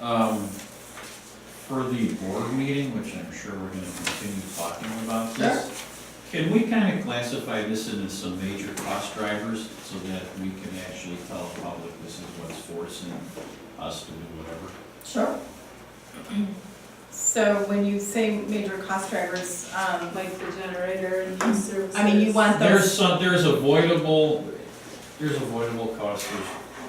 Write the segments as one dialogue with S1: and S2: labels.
S1: Um, For the board meeting, which I'm sure we're gonna continue talking about this, can we kind of classify this into some major cost drivers so that we can actually tell the public this is what's forcing us to do whatever?
S2: Sure.
S3: So when you say major cost drivers, um,
S4: like the generator and new services.
S3: I mean, you want
S1: There's
S3: those,
S1: some, there's avoidable, there's avoidable costs, there's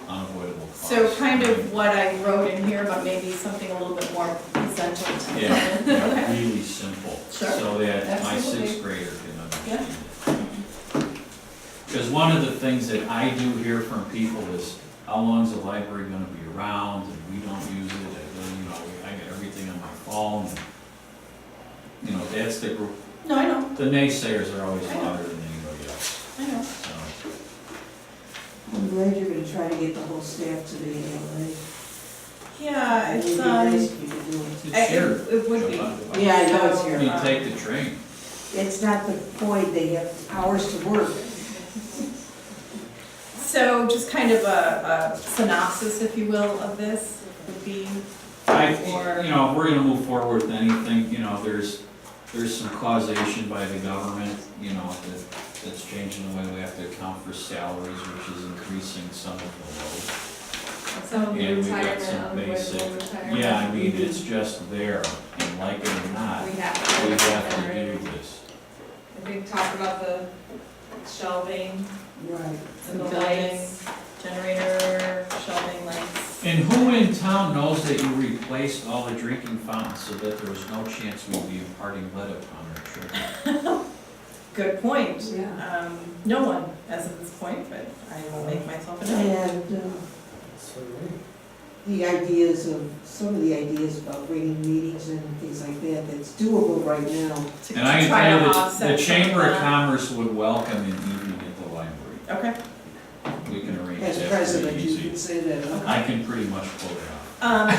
S1: unavoidable costs.
S3: so kind of what I wrote in here, but maybe something a little bit more essential to
S1: Yeah, yeah, really simple,
S3: Sure,
S1: so that my sixth
S3: absolutely.
S1: grader can understand it.
S3: Mm-hmm.
S1: Because one of the things that I do hear from people is, how long's the library gonna be around, and we don't use it, and, then, you know, I got everything on my phone. and, You know, that's the group,
S3: No, I know,
S1: the naysayers are always louder than anybody else,
S3: I know.
S1: so.
S2: I'm glad you're gonna try to get the whole staff to the ALA.
S3: Yeah,
S2: It'd
S3: it's,
S2: be
S3: um,
S2: nice if you could do it.
S1: It's
S3: I-
S1: here.
S3: it it would be.
S2: Yeah, I know it's
S3: So,
S2: here.
S1: You
S3: um,
S1: take the train,
S2: It's not the point, they have hours to work.
S3: So just kind of a, a synopsis, if you will, of this would be,
S1: I,
S3: Or-
S1: you know, if we're gonna move forward with anything, you know, there's, there's some causation by the government, you know, that, that's changing the way we have to account for salaries, which is increasing some of
S4: Some of
S1: Yeah,
S4: the
S1: we've got
S4: retirement,
S1: some
S4: unavoidable
S1: basic- the
S4: retirement.
S1: load. Yeah, I mean, it's just there, and like it or not,
S4: We
S1: we
S4: have to.
S1: have to do this.
S4: I think talk about the shelving
S2: Right.
S4: and the
S3: Building.
S4: lights.
S3: generator, shelving lights.
S1: And who in town knows that you replaced all the drinking fountains so that there was no chance we'd be imparting lead upon our children?
S3: Good point.
S2: Yeah.
S3: Um, no one as of this point, but I will make myself a note.
S2: And uh, the ideas of, some of the ideas about bringing meetings and things like that, that's doable right now.
S3: to-
S1: And I
S3: to
S1: can
S3: try
S1: tell
S3: to
S1: you, that
S3: offset
S1: the Chamber of
S3: some
S1: Commerce would welcome an evening at the library.
S3: that. Okay.
S1: We can arrange
S2: As
S1: that pretty
S2: president, you
S1: easy.
S2: can say that. uh,
S1: I can pretty much pull it off.
S3: Um,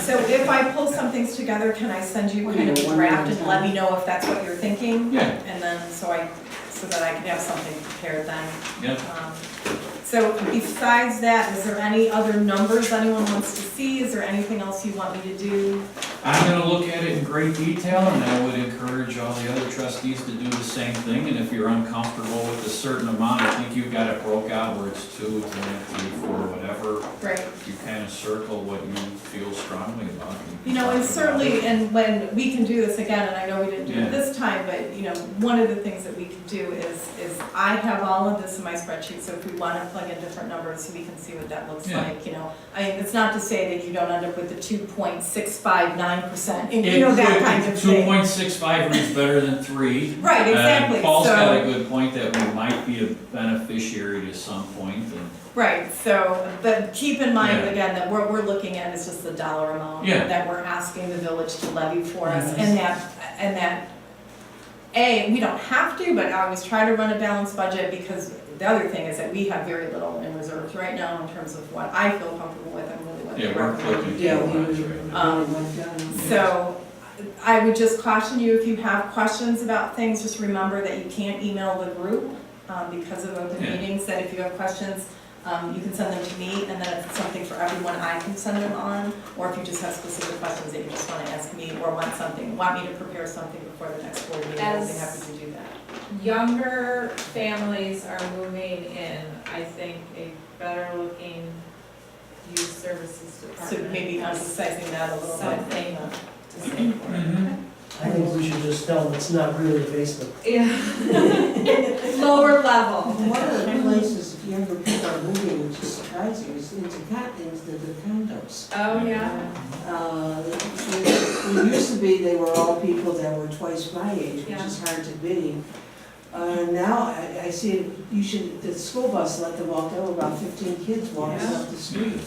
S3: so if I pull some things together, can I send you
S2: We
S3: kind of
S2: need
S3: a
S2: one
S3: draft
S2: more
S3: and let me know if that's what you're thinking?
S1: Yeah.
S3: And then, so I, so that I can have something prepared then.
S1: Yep,
S3: Um, So besides that, is there any other numbers anyone wants to see? Is there anything else you want me to do?
S1: I'm gonna look at it in great detail, and I would encourage all the other trustees to do the same thing, and if you're uncomfortable with a certain amount, I think you've got it broke out where it's two, it's one, three, four, whatever,
S3: Right.
S1: you kind of circle what you feel strongly about. and
S3: You know, and
S1: talk about
S3: certainly,
S1: it.
S3: and when, we can do this again, and I know we didn't do
S1: Yeah.
S3: it this time, but, you know, one of the things that we can do is, is I have all of this in my spreadsheet, so if we want to plug in different numbers, we can see what that looks
S1: Yeah.
S3: like, you know? I mean, it's not to say that you don't end up with the two point six five nine percent, and you know, that kind of
S1: Two
S3: thing.
S1: point six five reads better than three.
S3: Right,
S1: and
S3: exactly,
S1: Paul's got a
S3: so,
S1: good point that we might be a beneficiary to some point, and
S3: right, so, but keep in mind,
S1: Yeah.
S3: again, that what we're looking at is just the dollar amount
S1: Yeah.
S3: that we're asking the village to levy for us,
S2: Mhm.
S3: and that, and that A, we don't have to, but I always try to run a balanced budget because the other thing is that we have very little in reserves right now in terms of what I feel comfortable with and really what
S1: Yeah,
S3: they
S1: we're
S3: recommend.
S1: clicking
S2: Yeah, we
S1: lines
S2: would-
S1: right now.
S3: Um,
S2: we would like that.
S3: So I would just caution you, if you have questions about things, just remember that you can't email the group um, because of open
S1: Yeah.
S3: meetings, that if you have questions, um, you can send them to me and then if it's something for everyone, I can send them on. Or if you just have specific questions that you just want to ask me or want something, want me to prepare something before the next board meeting, I'd be
S4: As-
S3: happy to do that.
S4: Younger families are moving in, I think, a better looking youth services
S3: So
S4: department.
S3: maybe emphasizing that a little bit.
S4: Something. to save for
S3: Mm-hmm.
S4: it.
S5: I think we should just tell them it's not really a basement.
S4: Yeah. Lower level.
S3: Um,
S2: One of the places, if you ever pick up moving, which is surprising, is into con, is the the condos.
S4: Oh, yeah,
S2: Uh, It it used to be they were all people that were twice my age, which is hard to believe. Uh, Now, I, I see, it- you should, the school bus let them walk, there were about fifteen kids walking
S4: Yeah.
S2: up the street. And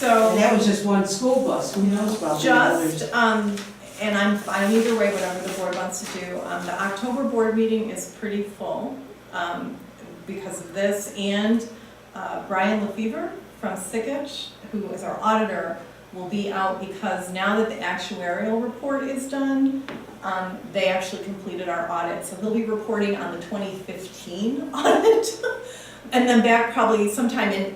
S3: So
S2: that was just one school bus, who knows about the others?
S3: just, um, and I'm fine either way, whatever the board wants to do. Um, the October board meeting is pretty full, um, because of this. And, uh, Brian LaFever from Sickich, who is our auditor, will be out because now that the actuarial report is done, um, they actually completed our audit. So he'll be reporting on the twenty fifteen audit. And then back probably sometime in